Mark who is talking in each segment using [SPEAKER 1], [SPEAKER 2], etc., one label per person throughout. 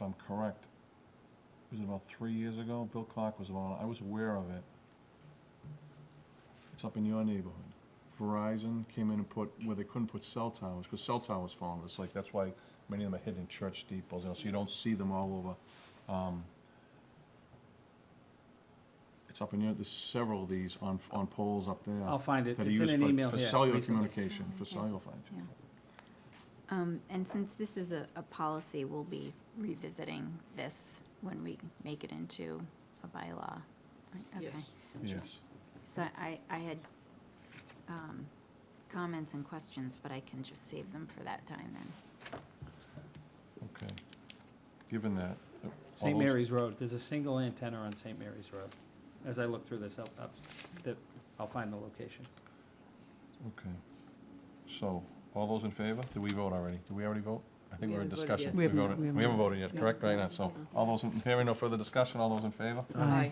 [SPEAKER 1] I'm correct, it was about three years ago, Bill Clark was on, I was aware of it. It's up in your neighborhood. Verizon came in and put, where they couldn't put cell towers, because cell towers fall on this, like, that's why many of them are hidden in church steeples, and so you don't see them all over. Um, It's up in your, there's several of these on, on poles up there.
[SPEAKER 2] I'll find it.
[SPEAKER 1] That are
[SPEAKER 2] It's in
[SPEAKER 1] used
[SPEAKER 2] an
[SPEAKER 1] for-
[SPEAKER 2] email
[SPEAKER 1] For
[SPEAKER 2] here
[SPEAKER 1] cellular
[SPEAKER 2] recently.
[SPEAKER 1] communication, for cellular phone.
[SPEAKER 3] Yeah. Um, And since this is a, a policy, we'll be revisiting this when we make it into a bylaw. right? Okay.
[SPEAKER 4] Yes.
[SPEAKER 1] Yes.
[SPEAKER 3] So I, I had um, comments and questions, but I can just save them for that time then.
[SPEAKER 1] Okay. Given that. uh, all
[SPEAKER 2] St.
[SPEAKER 1] those-
[SPEAKER 2] Mary's Road, there's a single antenna on St. Mary's Road. As I look through this, I'll, I'll- that- I'll find the locations.
[SPEAKER 1] Okay. So, all those in favor? Did we vote already? Did we already vote? I think
[SPEAKER 4] We
[SPEAKER 1] we're in
[SPEAKER 4] haven't voted
[SPEAKER 1] discussion.
[SPEAKER 4] yet.
[SPEAKER 5] We haven't-
[SPEAKER 1] voted-
[SPEAKER 5] we haven't
[SPEAKER 1] We haven't voted yet,
[SPEAKER 5] No.
[SPEAKER 1] correct, right now? So, all those, in- hearing no further discussion, all those in favor?
[SPEAKER 4] Aye.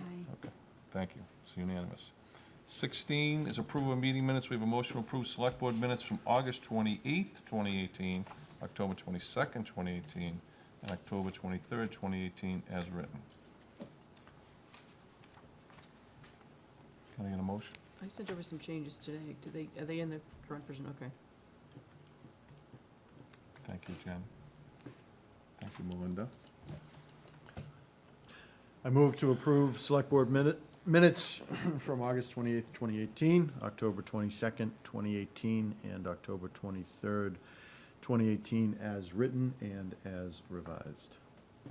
[SPEAKER 1] Thank you. It's unanimous. Sixteen is approval of meeting minutes. We have a motion to approve select board minutes from August twenty-eighth, twenty eighteen, October twenty-second, twenty eighteen, and October twenty-third, twenty eighteen, as written. Can I get a motion?
[SPEAKER 4] I sent over some changes today. Do they, are they in the current version? Okay.
[SPEAKER 1] Thank you, Jen. Thank you, Melinda.
[SPEAKER 6] I move to approve Select Board minute- minutes from August 28th, 2018, October 22nd, 2018, and October 23rd, 2018, as written and as revised.
[SPEAKER 1] We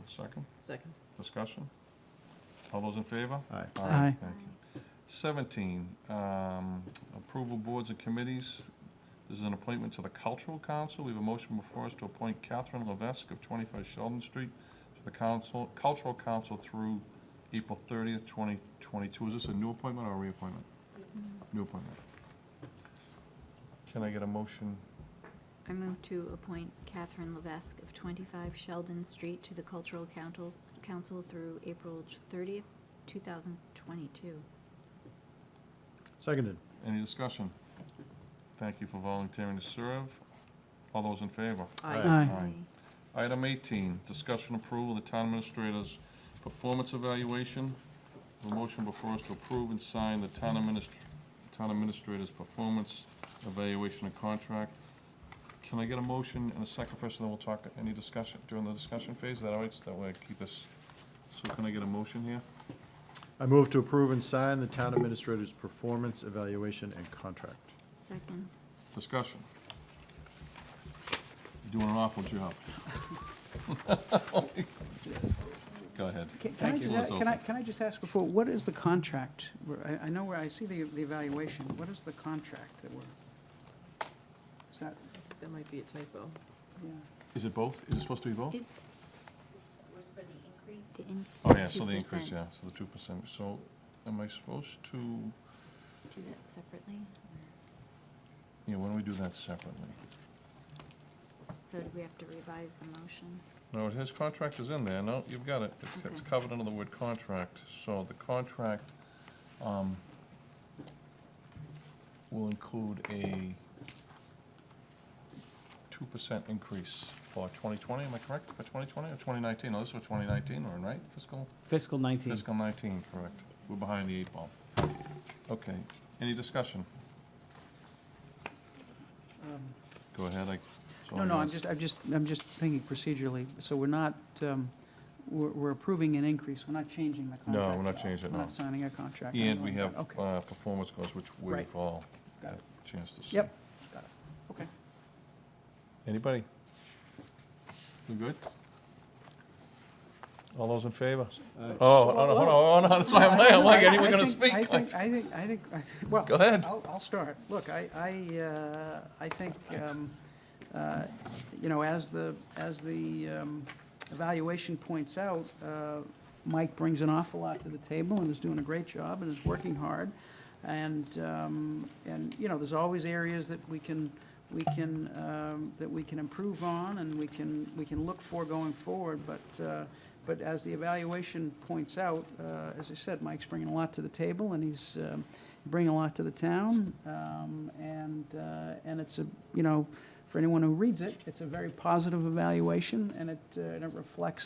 [SPEAKER 1] have a second?
[SPEAKER 4] Second.
[SPEAKER 1] Discussion? All those in favor?
[SPEAKER 6] Aye.
[SPEAKER 5] Aye.
[SPEAKER 1] Thank you. Seventeen, um, approval boards and committees. This is an appointment to the Cultural Council. We have a motion before us to appoint Catherine Levesque of twenty-five Sheldon Street to the council, Cultural Council through April thirtieth, twenty twenty-two. Is this a new appointment or a reappointment? New appointment. Can I get a motion?
[SPEAKER 3] I move to appoint Catherine Levesque of 25 Sheldon Street to the Cultural Council, Council through April 30th, 2022.
[SPEAKER 6] Seconded.
[SPEAKER 1] Any discussion? Thank you for volunteering to serve. All those in favor?
[SPEAKER 6] Aye.
[SPEAKER 1] Aye. Item 18, discussion approval of the town administrator's performance evaluation. A motion before us to approve and sign the town administr- town administrator's performance evaluation and contract. Can I get a motion and a second first, and then we'll talk, any discussion, during the discussion phase? Is that all right? So That way I keep us, so can I get a motion here?
[SPEAKER 6] I move to approve and sign the Town Administrator's Performance Evaluation and Contract.
[SPEAKER 3] Second.
[SPEAKER 1] Discussion. You're doing an awful job. Go ahead.
[SPEAKER 5] Can can I
[SPEAKER 1] Thank you,
[SPEAKER 5] just,
[SPEAKER 1] Liz
[SPEAKER 5] a- can I,
[SPEAKER 1] Olson.
[SPEAKER 5] can I just ask before, what is the contract? Where- I, I know where, I see the, the evaluation, what is the contract that we're? Is that,
[SPEAKER 4] That might be a typo.
[SPEAKER 5] yeah,
[SPEAKER 1] Is it both? Is it supposed to be both?
[SPEAKER 3] Is the in-
[SPEAKER 1] Oh, yeah, so the increase,
[SPEAKER 3] 2%.
[SPEAKER 1] yeah, so the two percent, so am I supposed to,
[SPEAKER 3] Do that separately?
[SPEAKER 1] yeah, why don't we do that separately?
[SPEAKER 3] So do we have to revise the motion?
[SPEAKER 1] No, his contract is in there, no, you've got it, It's- it's
[SPEAKER 3] Okay.
[SPEAKER 1] covered under the word contract, so the contract, um, will include a two percent increase for twenty twenty, am I correct, for twenty twenty or twenty nineteen, oh, this is for twenty nineteen, we're in, right, fiscal?
[SPEAKER 2] Fiscal 19.
[SPEAKER 1] Fiscal 19, correct. We're behind the eight ball. Okay, any discussion?
[SPEAKER 5] um,
[SPEAKER 1] Go ahead, I.
[SPEAKER 5] no, no, I'm just, I'm just, I'm just thinking procedurally, so we're not, um, we're, we're approving an increase, we're not changing the contract.
[SPEAKER 1] No, we're
[SPEAKER 5] at
[SPEAKER 1] not
[SPEAKER 5] all.
[SPEAKER 1] changing it,
[SPEAKER 5] We're
[SPEAKER 1] no.
[SPEAKER 5] not signing a contract. or
[SPEAKER 1] And
[SPEAKER 5] anything
[SPEAKER 1] we
[SPEAKER 5] like
[SPEAKER 1] have
[SPEAKER 5] that. Okay,
[SPEAKER 1] uh, performance goals, which we've
[SPEAKER 5] Right.
[SPEAKER 1] all
[SPEAKER 5] Got
[SPEAKER 1] had
[SPEAKER 5] it.
[SPEAKER 1] a chance to see.
[SPEAKER 5] Yep. okay.
[SPEAKER 1] Anybody? We good? All those in favor? Oh, oh, no, hold on, hold on, that's why I'm like, I'm like, anyone gonna
[SPEAKER 5] I think-
[SPEAKER 1] speak?
[SPEAKER 5] I think, I think, I think, I think- well.
[SPEAKER 1] Go ahead.
[SPEAKER 5] I'll, I'll start. Look, I, I, uh, I think,
[SPEAKER 1] Thanks.
[SPEAKER 5] um, uh, you know, as the, as the um, evaluation points out, uh, Mike brings an awful lot to the table and is doing a great job and is working hard. And, um, and, you know, there's always areas that we can, we can, um, that we can improve on and we can, we can look for going forward. But, uh, but as the evaluation points out, uh, as I said, Mike's bringing a lot to the table and he's um, bringing a lot to the town. Um, And, uh, and it's a, you know, for anyone who reads it, it's a very positive evaluation and it, uh, and it reflects